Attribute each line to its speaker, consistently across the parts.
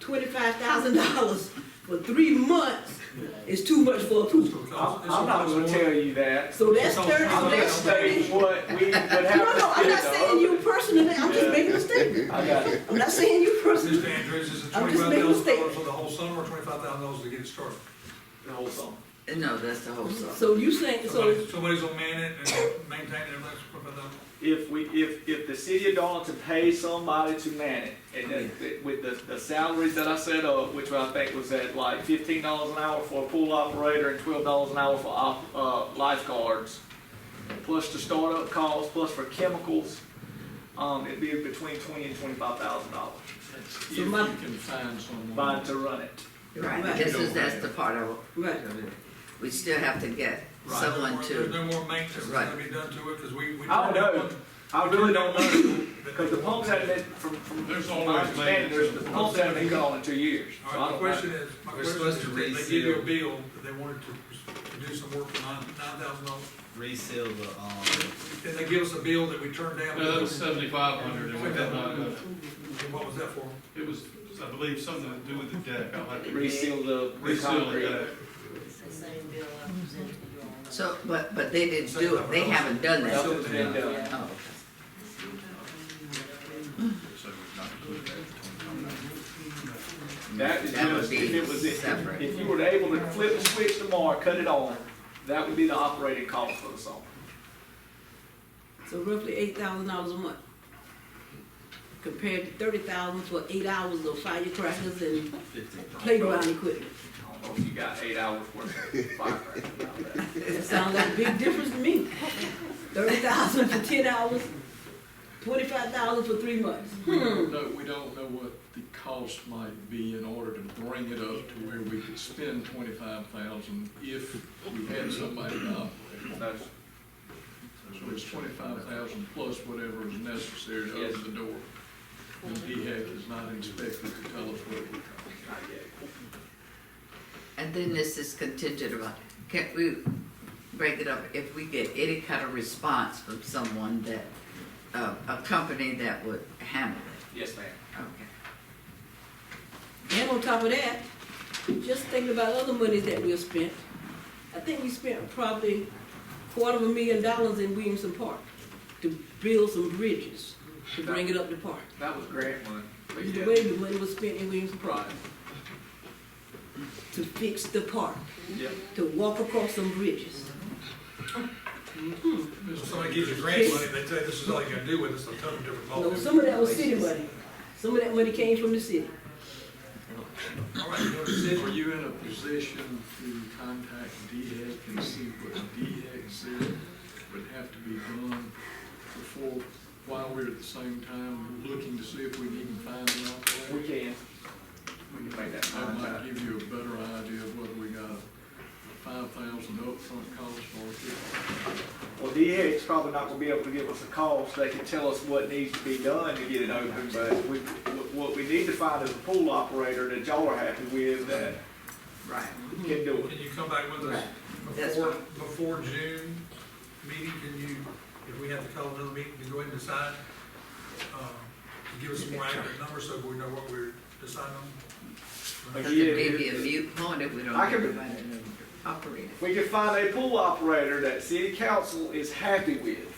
Speaker 1: twenty-five thousand dollars for three months is too much for a pooper.
Speaker 2: I'm, I'm not gonna tell you that.
Speaker 1: So that's
Speaker 2: So,
Speaker 1: thirty,
Speaker 2: I'm gonna
Speaker 1: that's
Speaker 2: say
Speaker 1: thirty.
Speaker 2: what we would have.
Speaker 1: No, no, I'm
Speaker 2: to
Speaker 1: not
Speaker 2: spend
Speaker 1: saying you personally, I'm just
Speaker 2: Yeah.
Speaker 1: making a statement.
Speaker 2: on- I got it.
Speaker 1: I'm not saying you personally.
Speaker 3: Mr. Andrews, is it
Speaker 1: I'm
Speaker 3: twenty-five
Speaker 1: just making a
Speaker 3: thousand
Speaker 1: statement.
Speaker 3: dollars for the whole summer, or twenty-five thousand dollars to get it started?
Speaker 2: The whole song.
Speaker 4: Uh, No, that's the whole song.
Speaker 1: So you saying, so,
Speaker 3: Somebody- Somebody's gonna man it and maintain it, everything's twenty-five thousand.
Speaker 2: If we, if, if the city of Darlington pays somebody to man it, and that- that, with the, the salaries that I set up, which I think was at like fifteen dollars an hour for a pool operator and twelve dollars an hour for op, uh, lifeguards, plus the startup costs, plus for chemicals, um, it'd be between twenty and twenty-five thousand dollars.
Speaker 5: If
Speaker 1: So
Speaker 5: you
Speaker 1: my-
Speaker 5: can find someone.
Speaker 2: Buying to run it.
Speaker 4: Right,
Speaker 1: Right.
Speaker 4: this is, that's the part of,
Speaker 1: right,
Speaker 4: we still have to get someone
Speaker 3: There's
Speaker 4: to,
Speaker 3: no more maintenance that's
Speaker 4: Right.
Speaker 3: gonna be done to it, because we, we.
Speaker 2: I don't know. I really don't know. Because
Speaker 3: Because
Speaker 2: the pumps haven't been, from, from
Speaker 5: There's
Speaker 2: from my
Speaker 5: always
Speaker 2: understanding,
Speaker 5: maintenance.
Speaker 2: there's, the pumps haven't been gone in two years. So
Speaker 3: All right,
Speaker 2: I
Speaker 3: my
Speaker 2: don't
Speaker 3: question
Speaker 2: know.
Speaker 3: is, my
Speaker 6: We're
Speaker 3: question
Speaker 6: supposed
Speaker 3: is,
Speaker 6: to
Speaker 3: if they give you a
Speaker 6: reseal.
Speaker 3: bill, that they wanted to, to do some work for nine, nine thousand dollars,
Speaker 6: reseal the, um,
Speaker 3: then they give us a bill that we turned down.
Speaker 5: No, that was seventy-five hundred, and we did not, uh,
Speaker 3: And What was that for?
Speaker 5: it was, I believe, something to do with the deck, I'll have to
Speaker 2: Reseal the, the
Speaker 5: reseal the
Speaker 2: concrete.
Speaker 5: deck.
Speaker 7: It's the same bill I presented to you all.
Speaker 4: so, but, but they didn't do it, they haven't done that.
Speaker 2: Nothing's been done.
Speaker 4: Oh,
Speaker 6: so we're not doing that between time.
Speaker 2: That is
Speaker 4: That would
Speaker 2: just,
Speaker 4: be
Speaker 2: if it was, if,
Speaker 4: separate.
Speaker 2: if you were able to flip the switch tomorrow, cut it on, that would be the operating cost for the song.
Speaker 1: so roughly eight thousand dollars a month. Compared to thirty thousand for eight hours of firecrackers and playground equipment.
Speaker 2: I don't know if you got eight hours worth of firecracker out there.
Speaker 1: It sounds like a big difference to me. Thirty thousand for ten hours, twenty-five thousand for three months. Hmm.
Speaker 5: We don't know, we don't know what the cost might be in order to bring it up to where we could spend twenty-five thousand if we had somebody to operate.
Speaker 2: That's-
Speaker 5: So it's twenty-five thousand plus whatever is necessary to open the door. And DHEC is not inspected to tell us what it would cost.
Speaker 2: not yet.
Speaker 4: And then this is contingent about, can we break it up if we get any kind of response from someone that, uh, a company that would handle it?
Speaker 2: Yes, ma'am.
Speaker 4: Okay.
Speaker 1: And on top of that, just thinking about other monies that we have spent, I think we spent probably quarter of a million dollars in Williamson Park to build some bridges, to bring it up to par.
Speaker 2: That was grant money.
Speaker 1: It's The way the money was spent in Williamson Park. To fix the park,
Speaker 2: Yep.
Speaker 1: to walk across some bridges.
Speaker 3: So Somebody gives you grant money, they tell you this is all you gotta do with it, it's a total different
Speaker 1: No,
Speaker 3: ballgame.
Speaker 1: some of that was city money. Some of that money came from the city.
Speaker 3: All right, you want to
Speaker 5: Are
Speaker 3: sit?
Speaker 5: you in a position to contact DHEC and see what DHEC said would have to be done before, while we're at the same time looking to see if we can find an
Speaker 2: We
Speaker 5: operator?
Speaker 2: can. We can make that
Speaker 5: That might
Speaker 2: contact.
Speaker 5: give you a better idea of whether we got five thousand upfront cost or if
Speaker 2: Well, DHEC's probably not gonna be able to give us a cost, they can tell us what needs to be done to get it open, but we, what- what we need to find is a pool operator that y'all are happy with that
Speaker 4: Right.
Speaker 2: can do it.
Speaker 3: Can you come back with us
Speaker 4: That's
Speaker 3: before, before June meeting? Can you, if we have to call another meeting, to go ahead and decide? uh, to Give us some more accurate numbers so we know what we're deciding on?
Speaker 4: Because it may be a mute point if we don't
Speaker 2: I can-
Speaker 4: everybody know the operator.
Speaker 2: We can find a pool operator that city council is happy with,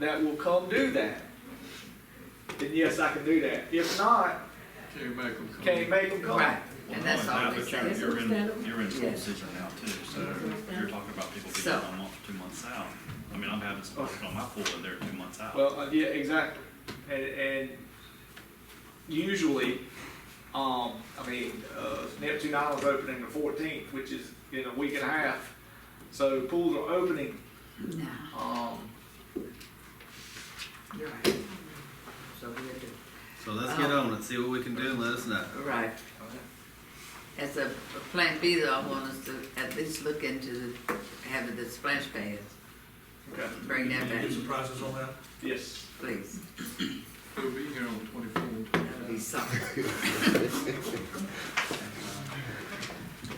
Speaker 2: that will come do that. Then yes, I can do that. If not,
Speaker 5: Terry Mack will come.
Speaker 2: can't make them come.
Speaker 4: Right, and that's all we
Speaker 6: Well,
Speaker 4: say.
Speaker 1: That's
Speaker 6: You're in,
Speaker 1: understandable.
Speaker 6: you're in full
Speaker 4: Yeah.
Speaker 6: season now too, so you're talking about people being
Speaker 4: So-
Speaker 6: a month, two months out. I mean, I'm having some work on my pool and they're two months out.
Speaker 2: Well, uh, yeah, exactly. And, and usually, um, I mean, uh, Neptune Island's opening the fourteenth, which is in a week and a half. So pools are opening,
Speaker 4: No,
Speaker 2: um,
Speaker 4: you're right. So we have to
Speaker 6: So let's get on it, see what we can do and let us know.
Speaker 4: Right. As a plan B though, I want us to at least look into the, having the splash pads,
Speaker 2: okay,
Speaker 4: bring that
Speaker 3: Can you
Speaker 4: back,
Speaker 3: give some prices on that?
Speaker 2: yes.
Speaker 4: please.
Speaker 5: He'll be here on twenty-four and
Speaker 4: That'll be
Speaker 5: twenty-five.
Speaker 4: something,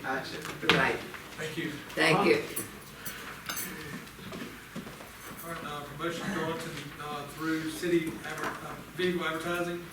Speaker 2: Action.
Speaker 4: right,
Speaker 3: Thank you.
Speaker 4: thank you.
Speaker 3: All right, now, promotion going to, uh, through city adver- uh, vehicle advertising.